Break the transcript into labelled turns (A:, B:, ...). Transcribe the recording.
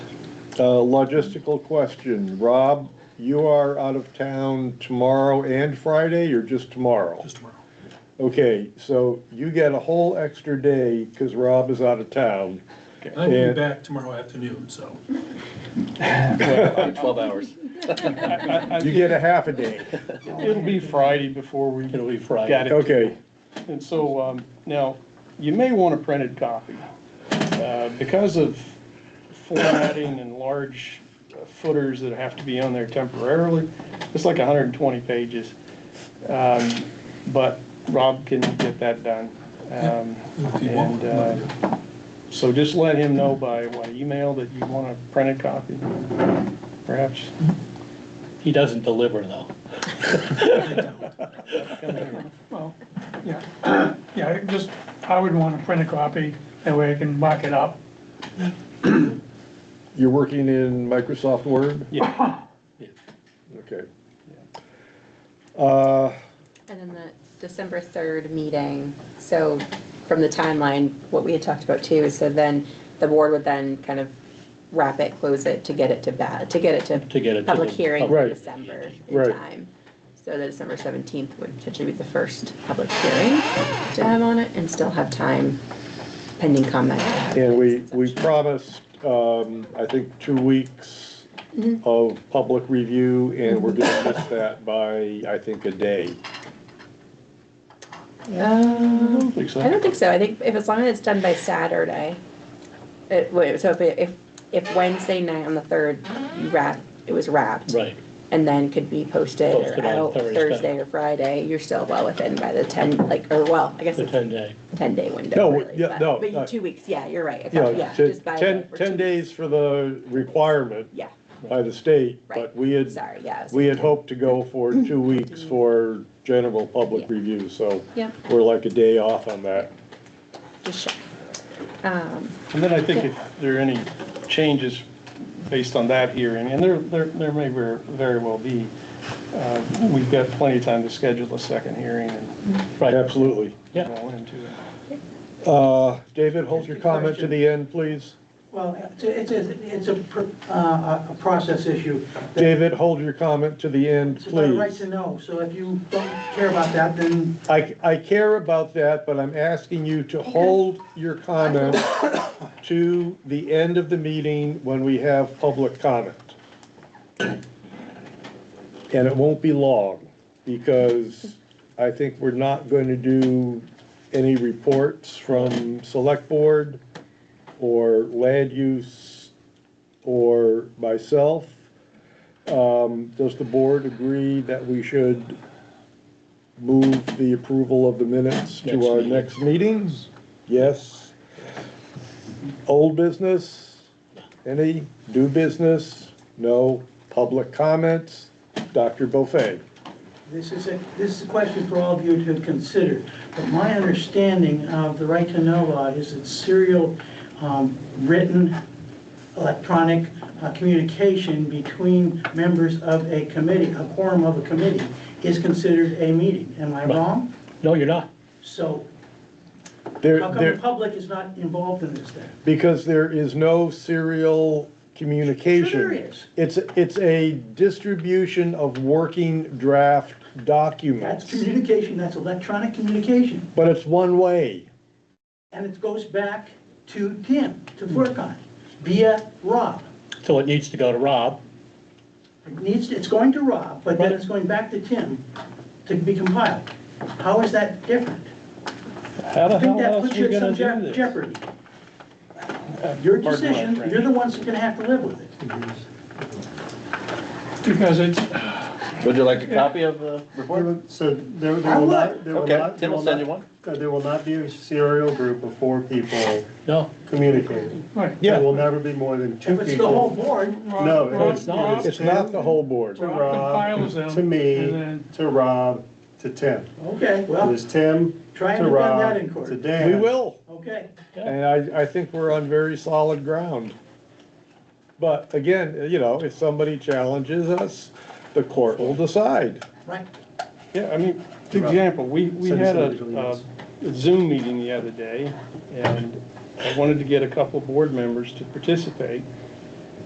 A: Uh, logistical question, Rob, you are out of town tomorrow and Friday, or just tomorrow?
B: Just tomorrow.
A: Okay, so you get a whole extra day, cause Rob is out of town.
B: I will
A: Yeah.
B: be back tomorrow afternoon, so.
C: Twelve hours.
A: You get a half a day.
D: It'll be Friday before we
C: It'll be
D: Got
C: Friday.
D: it.
A: Okay,
D: And so, um, now, you may want a printed copy. Uh, Because of formatting and large uh, footers that have to be on there temporarily, it's like hundred and twenty pages. Um, But Rob can get that done. Um,
B: if you want,
D: And, uh, so just let him know by, what, email that you want a printed copy, perhaps?
C: He doesn't deliver though.
E: Well, yeah, yeah, I just, I would want to print a copy, that way I can mark it up.
A: you're working in Microsoft Word?
D: Yeah.
A: Okay. Uh,
F: And then the December 3rd meeting, so from the timeline, what we had talked about too, is so then the board would then kind of wrap it, close it to get it to bat, to get it to.
C: To get it to
F: Public
C: the-
F: hearing
A: Right.
F: in December in
A: Right.
F: time. So the December 17th would potentially be the first public hearing to have on it and still have time pending comment.
A: And we, we promised, um, I think, two weeks of public review, and we're gonna miss that by, I think, a day.
D: I
F: Um,
D: don't think so.
F: I don't think so. I think if, as long as it's done by Saturday, it, wait, so if, it- if, if Wednesday night on the third, you wrap, it was wrapped.
C: Right.
F: And then could be posted
C: Posted
F: or
C: on
F: out
C: Thursday.
F: Thursday or Friday, you're still well within by the ten, like, or well, I guess
C: The
F: it's
C: ten day.
F: ten day window.
A: No,
F: really,
A: yeah,
F: but-
A: no,
F: But
A: uh,
F: you- two weeks, yeah, you're right. I
A: You
F: thought,
A: know,
F: Yeah,
A: to-
F: just by.
A: ten,
F: or two-
A: ten days for the requirement
F: Yeah,
A: by the state,
F: Right.
A: but we had,
F: sorry, yeah. so-
A: we had hoped to go for two weeks for general public
F: Yeah.
A: review, so
F: Yeah,
A: we're like a day off on that.
F: just check. Um,
D: And then I think if there are any changes based on that hearing, and there, there, there may ver- very well be, uh, we've got plenty of time to schedule a second hearing and
C: Right.
A: Absolutely.
C: Yeah.
D: roll into it.
A: Uh, David, hold your comment to the end, please.
G: Well, it's, a- it's, a- it's a, pr- uh, a process issue.
A: David, hold your comment to the end,
G: It's about a right
A: please.
G: to know, so if you don't care about that, then
A: I, I care about that, but I'm asking you to hold your comment to the end of the meeting when we have public comment. And it won't be long, because I think we're not going to do any reports from select board or land use or myself. Um, does the board agree that we should move the approval of the minutes
C: Next
A: to our
C: meeting.
A: next meetings? Yes. Old business? Any? New business? No. Public comments? Dr. Buffet?
G: this is a, this is a question for all of you to consider. But my understanding of the right to know law is it's serial, um, written, electronic uh, communication between members of a committee, a quorum of a committee is considered a meeting. Am I wrong?
C: No, you're not.
G: So
A: There,
G: how come the
A: there,
G: public is not involved in this then?
A: because there is no serial communication.
G: Sure there is.
A: It's, it's a distribution of working draft
G: That's
A: documents,
G: communication, that's electronic communication,
A: but it's one way.
G: and it goes back to Tim to
C: Hmm.
G: work on via Rob.
C: So it needs to go to Rob.
G: It needs, it's going to Rob, but then it's going back to Tim to be compiled. How is that different?
C: How the
G: I think
C: hell
G: that
C: else
G: puts
C: are
G: you
C: you
G: in
C: gonna
G: some
C: do this?
G: je-
C: Uh,
G: jeopardy. Your
D: my
G: decision,
D: French.
G: you're the ones that are gonna have to live with it.
E: Because it's,
C: Would you like a copy of the report?
H: So there there
G: I
H: will
G: would.
H: not, there will
C: Okay,
H: not.
C: Tim will send you one.
H: uh, There will not be a serial group of four people
C: No,
H: communicating.
E: right.
A: Yeah.
H: There will never be more than two
G: If
H: people.
G: it's the whole board,
H: No,
E: Rob-
H: it's
C: not.
H: not.
A: It's not the whole board.
H: To
E: compiles them,
H: Rob, to
E: and
H: me,
E: then-
H: to Rob, to Tim.
G: okay,
H: It
G: well,
H: was Tim, to
G: Try and defend that in
H: Rob,
G: court.
H: to Dan.
A: We will.
G: okay.
A: And I, I think we're on very solid ground. But again, you know, if somebody challenges us, the court will decide.
G: Right.
D: Yeah, I mean, for example, we, we
H: Send us
D: had
H: individual
D: a
H: emails.
D: a Zoom meeting the other day, and I wanted to get a couple board members to participate.